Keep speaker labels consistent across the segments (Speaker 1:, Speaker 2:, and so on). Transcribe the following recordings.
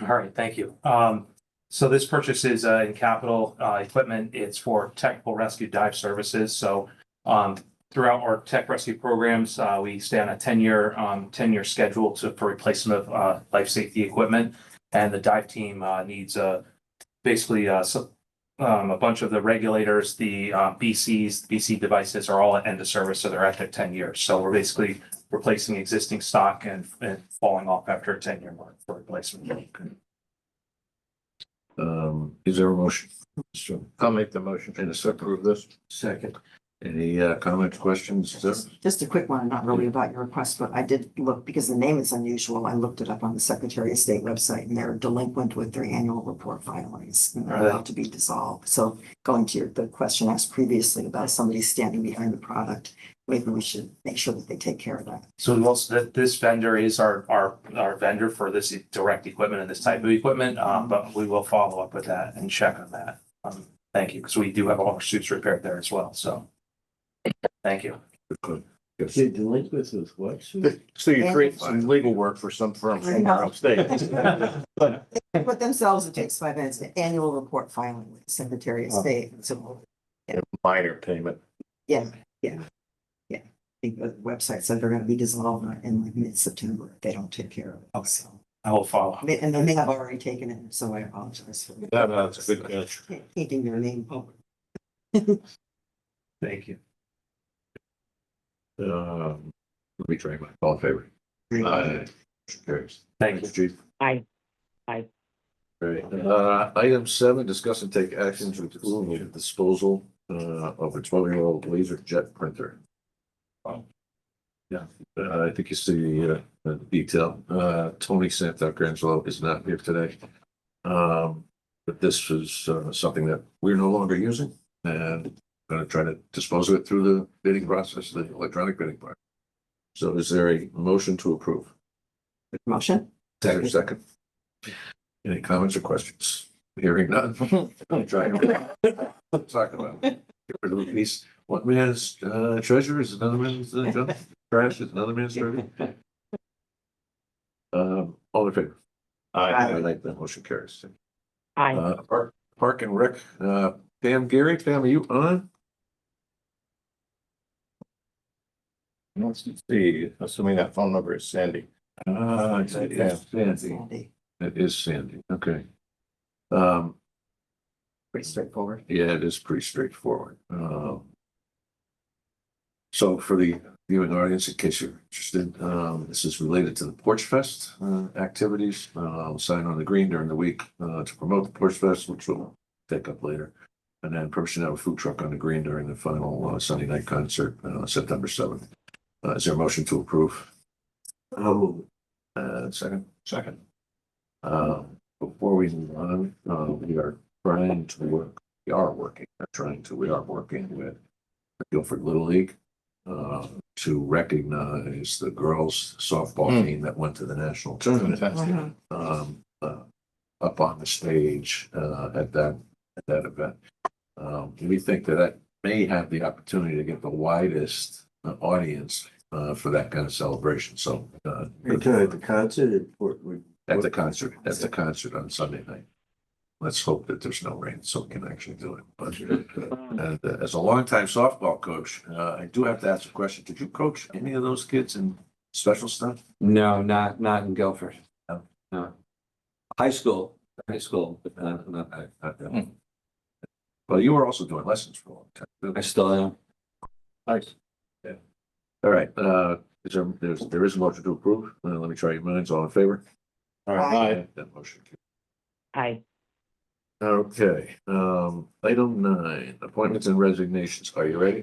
Speaker 1: All right, thank you. Um, so this purchase is, uh, in capital, uh, equipment. It's for technical rescue dive services. So, um, throughout our tech rescue programs, uh, we stay on a ten-year, um, ten-year schedule to, for replacement of, uh, life safety equipment. And the dive team, uh, needs, uh, basically, uh, so, um, a bunch of the regulators, the, uh, BCs, BC devices are all at end of service, so they're at their ten years. So we're basically replacing existing stock and, and falling off after a ten-year mark for replacement.
Speaker 2: Um, is there a motion? I'll make the motion. And a second approve this? Second. Any uh comments, questions? sir?
Speaker 3: Just a quick one, not really about your request, but I did look, because the name is unusual, I looked it up on the Secretary of State website and they're delinquent with their annual report filings. And they're
Speaker 1: Right.
Speaker 3: about to be dissolved, so going to your, the question asked previously about somebody standing behind the product, maybe we should make sure that they take care of that.
Speaker 1: So we also, that this vendor is our, our, our vendor for this e, direct equipment and this type of equipment, um, but we will follow up with that and check on that. Um, thank you, because we do have all our suits repaired there as well, so. Thank you.
Speaker 2: Good.
Speaker 4: You're delinquent with what? sir?
Speaker 5: So you
Speaker 3: And-
Speaker 5: create some legal work for some firm somewhere upstate.
Speaker 3: But themselves, it takes five minutes, an annual report filing with the Secretary of State, so
Speaker 5: Minor payment.
Speaker 3: I think the website said they're gonna be dissolved in like mid-September if they don't take care of it.
Speaker 1: Okay.
Speaker 3: So-
Speaker 1: I will follow.
Speaker 3: I mean, And they may have already taken it, so I apologize for
Speaker 5: No, no, it's a good catch.
Speaker 3: taking their name public.
Speaker 1: Thank you.
Speaker 2: Um, let me try my, all in favor? Aye. Carries.
Speaker 1: Thank you.
Speaker 2: Thanks, chief.
Speaker 6: Aye. Aye.
Speaker 2: Great. Uh, item seven, discuss and take actions with the disposal uh of a twelve-year-old laser jet printer. Yeah, uh, I think you see uh, the detail. Uh, Tony Santangelo is not here today. Um, but this is uh, something that we're no longer using and gonna try to dispose of it through the bidding process, the electronic bidding part. So is there a motion to approve?
Speaker 3: Motion?
Speaker 2: Second, second. Any comments or questions? Hearing none. Try to- Talk about. Get rid of the piece. One man's uh, treasure is another man's uh, junk. trash is another man's treasure. Um, all in favor?
Speaker 3: Aye.
Speaker 2: I like that motion carries.
Speaker 6: Aye.
Speaker 2: Uh, Park, Park and Rec, uh, Pam Gary, Pam, are you on?
Speaker 5: Let's see, assuming that phone number is Sandy.
Speaker 2: Ah, that is Sandy.
Speaker 3: Sandy.
Speaker 2: That is Sandy, okay. Um,
Speaker 3: Pretty straightforward.
Speaker 2: Yeah, it is pretty straightforward. Um, So for the viewing audience, in case you're interested, um, this is related to the Porch Fest uh, activities. Uh, I'll sign on the green during the week uh, to promote the Porch Fest, which we'll take up later. And then permission to have a food truck on the green during the final uh, Sunday night concert, uh, September seventh. Uh, Is there a motion to approve? Uh, Second? Second. Um, Before we move on, uh, we are trying to work we are working, not trying to, we are working with the Guilford Little League uh, to recognize the girls softball
Speaker 5: Hmm.
Speaker 2: team that went to the national tournament
Speaker 5: Fantastic.
Speaker 2: um, uh, up on the stage, uh, at that, at that event. Um, we think that that may have the opportunity to get the widest uh, audience, uh, for that kind of celebration, so, uh,
Speaker 4: You're talking about the concert at Fort Wood?
Speaker 2: at the concert, at the concert on Sunday night. Let's hope that there's no rain so we can actually do it. But uh, uh, as a longtime softball coach, uh, I do have to ask a question. Did you coach any of those kids in special stuff?
Speaker 7: No, not, not in Guilford.
Speaker 2: No.
Speaker 7: No. High school, high school, but not, not, I-
Speaker 2: Uh, uh, Well, you were also doing lessons for a long time.
Speaker 7: I still am.
Speaker 2: All right, uh, is there, there's, there is a motion to approve. Uh, Let me try your minds. All in favor?
Speaker 5: All
Speaker 3: Aye.
Speaker 5: right,
Speaker 2: That motion carries.
Speaker 6: Aye.
Speaker 2: Okay, um, item nine, appointments and resignations. Are you ready?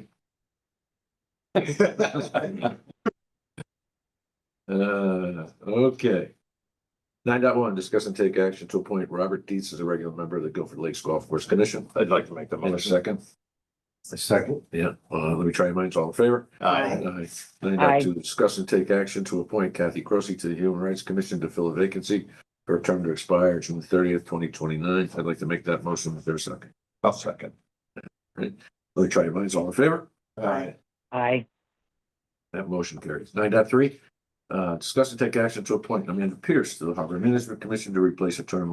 Speaker 2: Uh, okay. Nine dot one, discuss and take action to appoint Robert Dietz as a regular member of the Guilford Lakes Golf Course Commission.
Speaker 5: I'd like to make the
Speaker 2: In a
Speaker 5: motion.
Speaker 2: second,
Speaker 5: A second.
Speaker 2: yeah, uh, let me try your minds, all in favor?
Speaker 3: Aye.
Speaker 2: Nine dot
Speaker 6: Aye.
Speaker 2: two, discuss and take action to appoint Kathy Crossy to the Human Rights Commission to fill a vacancy for a term to expire June thirtieth, twenty twenty-nine. I'd like to make that motion with their second.
Speaker 5: I'll second.
Speaker 2: Let me try your minds, all in favor?
Speaker 3: Aye.
Speaker 6: Aye.
Speaker 2: That motion carries. Nine dot three, Uh, discuss and take action to appoint Amanda Pierce to the Harbor Management Commission to replace a term